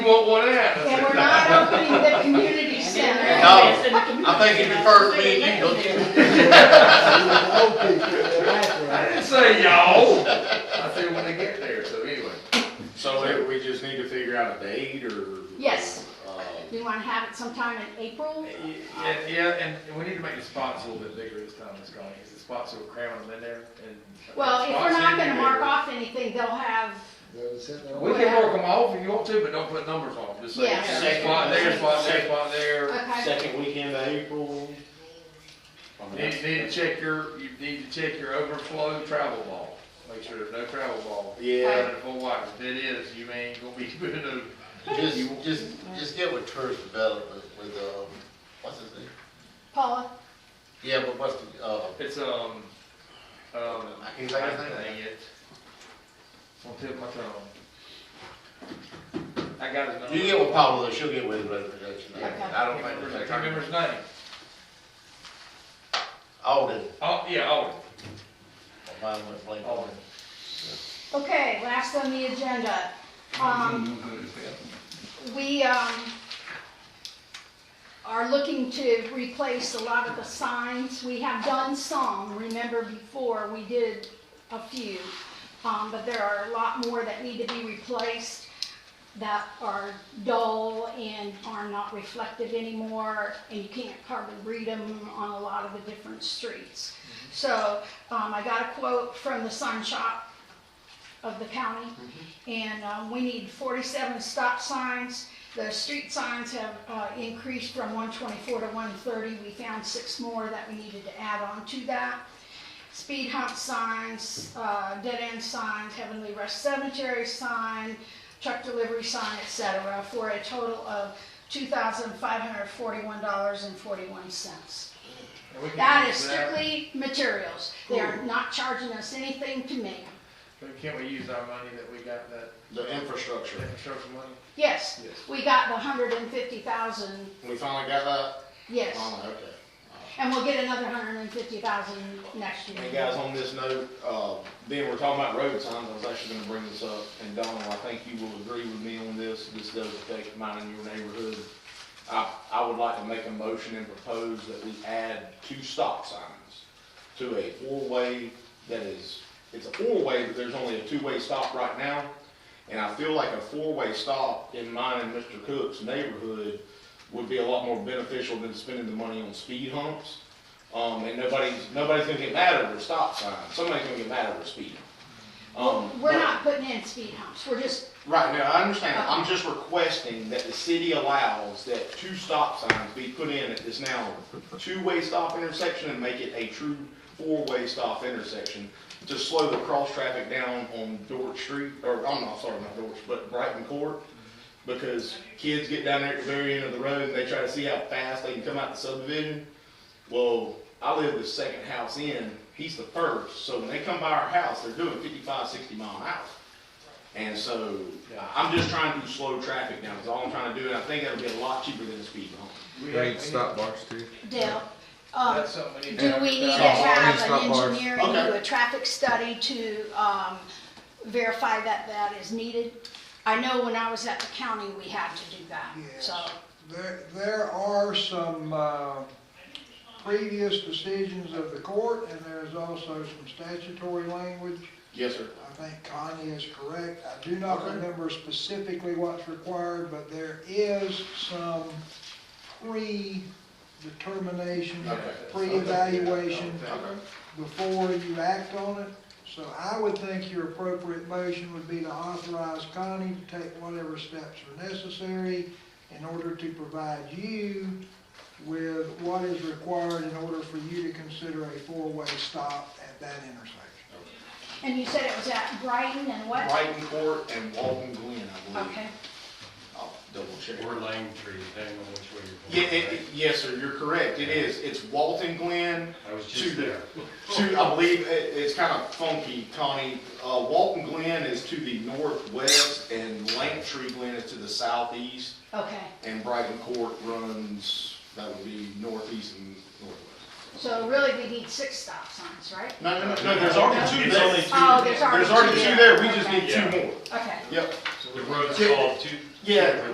What, what happened? And we're not opening the community center. No, I think it refers to me and you, don't you? I didn't say y'all. I said when they get there, so anyway. So it- we just need to figure out a date or? Yes. um, Uh, We want to have it sometime in April. Yeah, yeah, and we need to make the spots a little bit bigger this time, Ms. Connie, because the spots are cramming them in there and. Well, if we're Spots not need gonna be mark bigger. off anything, they'll have, We can mark them off if you want to, but don't put numbers on them, just say, Yeah. spot there, spot there, spot there. okay, Second weekend of April? I mean, You Need, that's- you need to check your, you need to check your overflow travel ball, make sure there's no travel ball. Yeah, Running full wide, if it is, you ain't gonna be good enough. Just, just, just get with tourist development with, um, what's his name? Paula, Yeah, but what's the, uh, It's, um, um, I can't think I of his name. think it. On tip of my tongue. I got his number. You get with Pablo, she'll get with him, but I don't Can't think. remember- can't remember his name. Alden, Oh, yeah, Alden, mine went blank. Alden. okay, last on the agenda. Um, we, um, are looking to replace a lot of the signs. We have done some, remember before, we did a few. Um, but there are a lot more that need to be replaced that are dull and are not reflective anymore, and you can't hardly read them on a lot of the different streets. So, um, I got a quote from the sign shop of the county, and, um, we need forty-seven stop signs. The street signs have, uh, increased from one twenty-four to one thirty, we found six more that we needed to add on to that speed hump signs, uh, dead end signs, Heavenly Rest Cemetery sign, truck delivery sign, et cetera, for a total of two thousand five hundred forty-one dollars and forty-one cents. And we can That is use strictly materials. They are not charging us anything to make. But Can't we use our money that we got, that the infrastructure. infrastructure money? Yes, Yes. we got the hundred and fifty thousand, We finally got that? yes, Finally, okay. and we'll get another hundred and fifty thousand next year. Hey guys, on this note, uh, then we're talking about road signs, I was actually gonna bring this up, and Donald, I think you will agree with me on this, this does affect mine and your neighborhood. I, I would like to make a motion and propose that we add two stop signs to a four-way that is, it's a four-way, but there's only a two-way stop right now. And I feel like a four-way stop in mine and Mr. Cook's neighborhood would be a lot more beneficial than spending the money on speed humps. Um, and nobody's, nobody's gonna get mad over a stop sign. Somebody's gonna get mad over speed. Um, We're but- not putting in speed humps, we're just, Right, now, I understand. I'm just requesting that the city allows that two stop signs be put in at this now two-way stop intersection and make it a true four-way stop intersection to slow the cross-traffic down on Dorch Street, or, I'm not, sorry, not Dorch, but Brighton Court. Because kids get down there at the very end of the road and they try to see how fast they can come out the subdivision. Well, I live the second house in, he's the first, so when they come by our house, they're doing 55, 60 mile an hour. And so, I'm just trying to slow traffic down, is all I'm trying to do, and I think that'll be a lot cheaper than a speed bump. We They have- need stop bars too. Dale, um, That's something we need. Do to we need to advertise. Stop have bars. an engineer and Okay. do a traffic study to um, verify that that is needed? I know when I was at the county, we had to do that, Yes. so, There, there are some, uh, previous decisions of the court, and there's also some statutory language. Yes, sir. I think Connie is correct. I do not Okay. remember specifically what's required, but there is some pre-determination, Okay. pre-evaluation Okay. before you act on it. So I would think your appropriate motion would be to authorize Connie to take whatever steps are necessary in order to provide you with what is required in order for you to consider a four-way stop at that intersection. and you said it was at Brighton and what? Brighton Court and Walton Glen, I believe. Okay, I'll double check. Or Lane Tree, depending on which way Yeah, you're going. it, it- yes, sir, you're correct, it is, it's Walton Glen I was to just the, there. to, I believe, it, it's kind of funky, Connie. Uh, Walton Glen is to the northwest and Langtree Glen is to the southeast, okay, and Brighton Court runs, that would be northeast and northwest. so really we need six stop signs, right? No, no, no, no, there's already two It's there. only two. Oh, there's already There's already two there, we just Okay. need two more. Okay. Yep, The road's called two. Yeah.